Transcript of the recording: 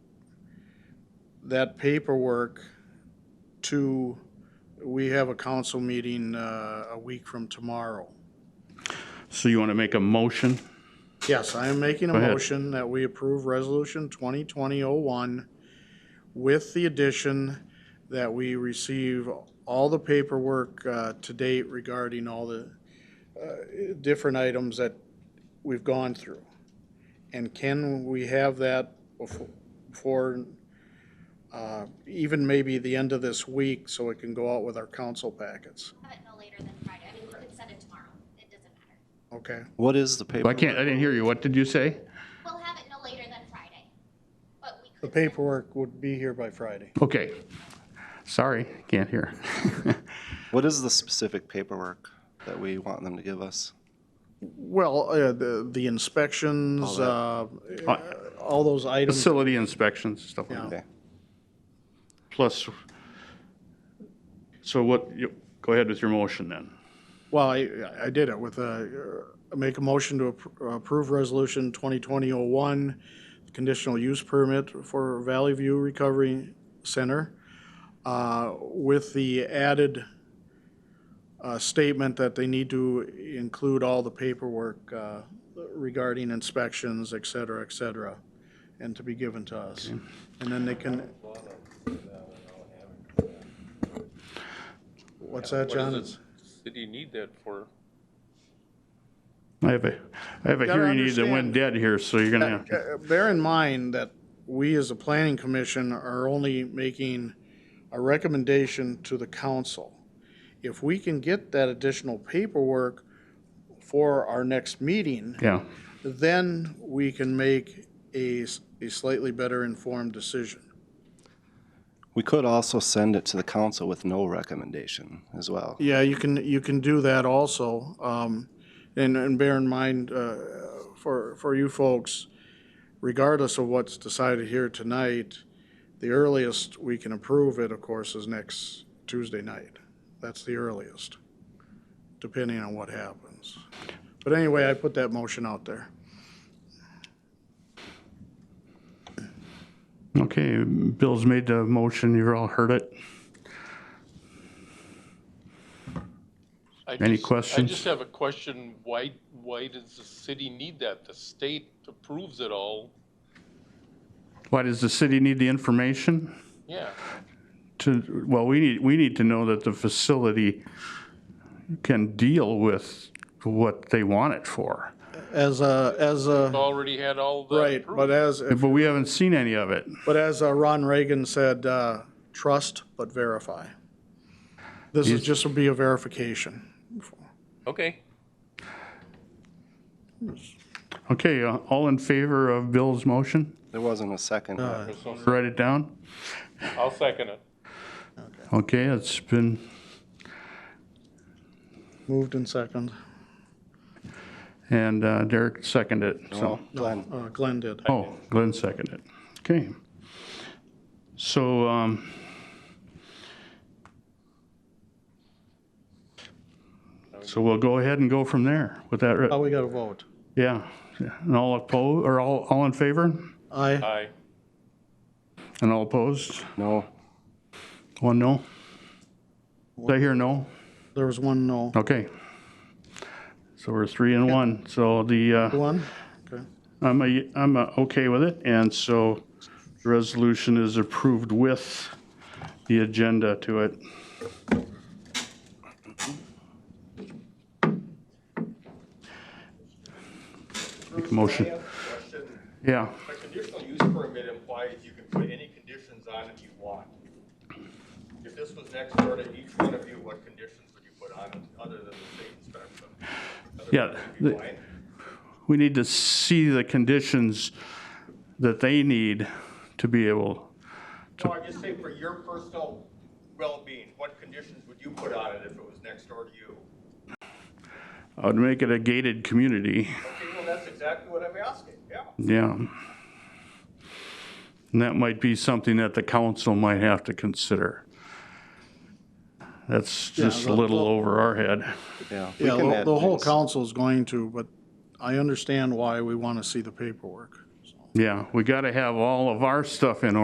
that paperwork to, we have a council meeting uh, a week from tomorrow. So you want to make a motion? Yes, I am making a Go ahead. motion that we approve Resolution 2020-01 with the addition that we receive all the paperwork uh, to date regarding all the uh, different items that we've gone through. And can we have that befo- before, uh, even maybe the end of this week, so it can go out with our council packets? Have it no later than Friday. I mean, you could send it tomorrow. It doesn't matter. Okay? What is the I paperwork? can't, I didn't hear you. What did you say? We'll have it no later than Friday. But we could. The send- paperwork would be here by Friday. Okay. Sorry, can't hear. What is the specific paperwork that we want them to give us? Well, uh, the the inspections, uh, all those items, Facility inspections, stuff like that. Okay. Plus, so what, you- go ahead with your motion then. well, I I did it with a, uh, make a motion to appro- approve Resolution 2020-01, conditional use permit for Valley View Recovery Center, uh, with the added uh, statement that they need to include all the paperwork uh, regarding inspections, et cetera, et cetera, and to be given to us. And then they can, what's that, John? It's- Did you need that for? I have a, I have a Gotta hearing aid that went understand. dead here, so you're gonna, Uh, Bear in mind that we, as a planning commission, are only making a recommendation to the council. If we can get that additional paperwork for our next meeting, yeah. then we can make a s- a slightly better informed decision. We could also send it to the council with no recommendation as well. Yeah, you can, you can do that also. Um, And, and bear in mind, uh, for, for you folks, regardless of what's decided here tonight, the earliest we can approve it, of course, is next Tuesday night. That's the earliest, depending on what happens. But anyway, I put that motion out there. Okay, Bill's made the motion, you've all heard it. I Any just- questions? I just have a question. Why, why does the city need that? The state approves it all. Why does the city need the information? Yeah. to, well, we need, we need to know that the facility can deal with what they want it for. As a, as a, Already had all the. right, but as, Uh, But we haven't seen any of it. But as uh, Ron Reagan said, uh, trust but verify. This is just will be a verification. Okay. Okay, uh, all in favor of Bill's motion? There wasn't a second. Uh, Write it down. I'll second it. Okay, it's been, Moved in second. and uh, Derek seconded it, so. Glenn, Uh, Glenn did. Oh, Glenn seconded it. Okay. So, um, so we'll go ahead and go from there with that. re- Oh, we got a vote. Yeah, and all opposed, or all, all in favor? Aye. Aye. And all opposed? no. One no? Did I hear no? There was one no. Okay. So we're three and one, so the, uh, One? Okay. I'm a, I'm a okay with it, and so the resolution is approved with the agenda to it. Make a motion, Question, yeah. a conditional use permit implies you can put any conditions on it you want. If this was next door to each one of you, what conditions would you put on it, other than the state inspection? Other Yeah, than you'd be the- blind? We need to see the conditions that they need to be able, No, I'm just saying for your personal well-being, what conditions would you put on it if it was next door to you? I would uh, make it a gated community. Okay, well, that's exactly what I'm asking, yeah. Yeah. And that might be something that the council might have to consider. That's just a the- little the- over our head. Yeah. we Yeah, can the- add the whole things. council's going to, but I understand why we want to see the paperwork. Yeah, we got to have all of our stuff in order.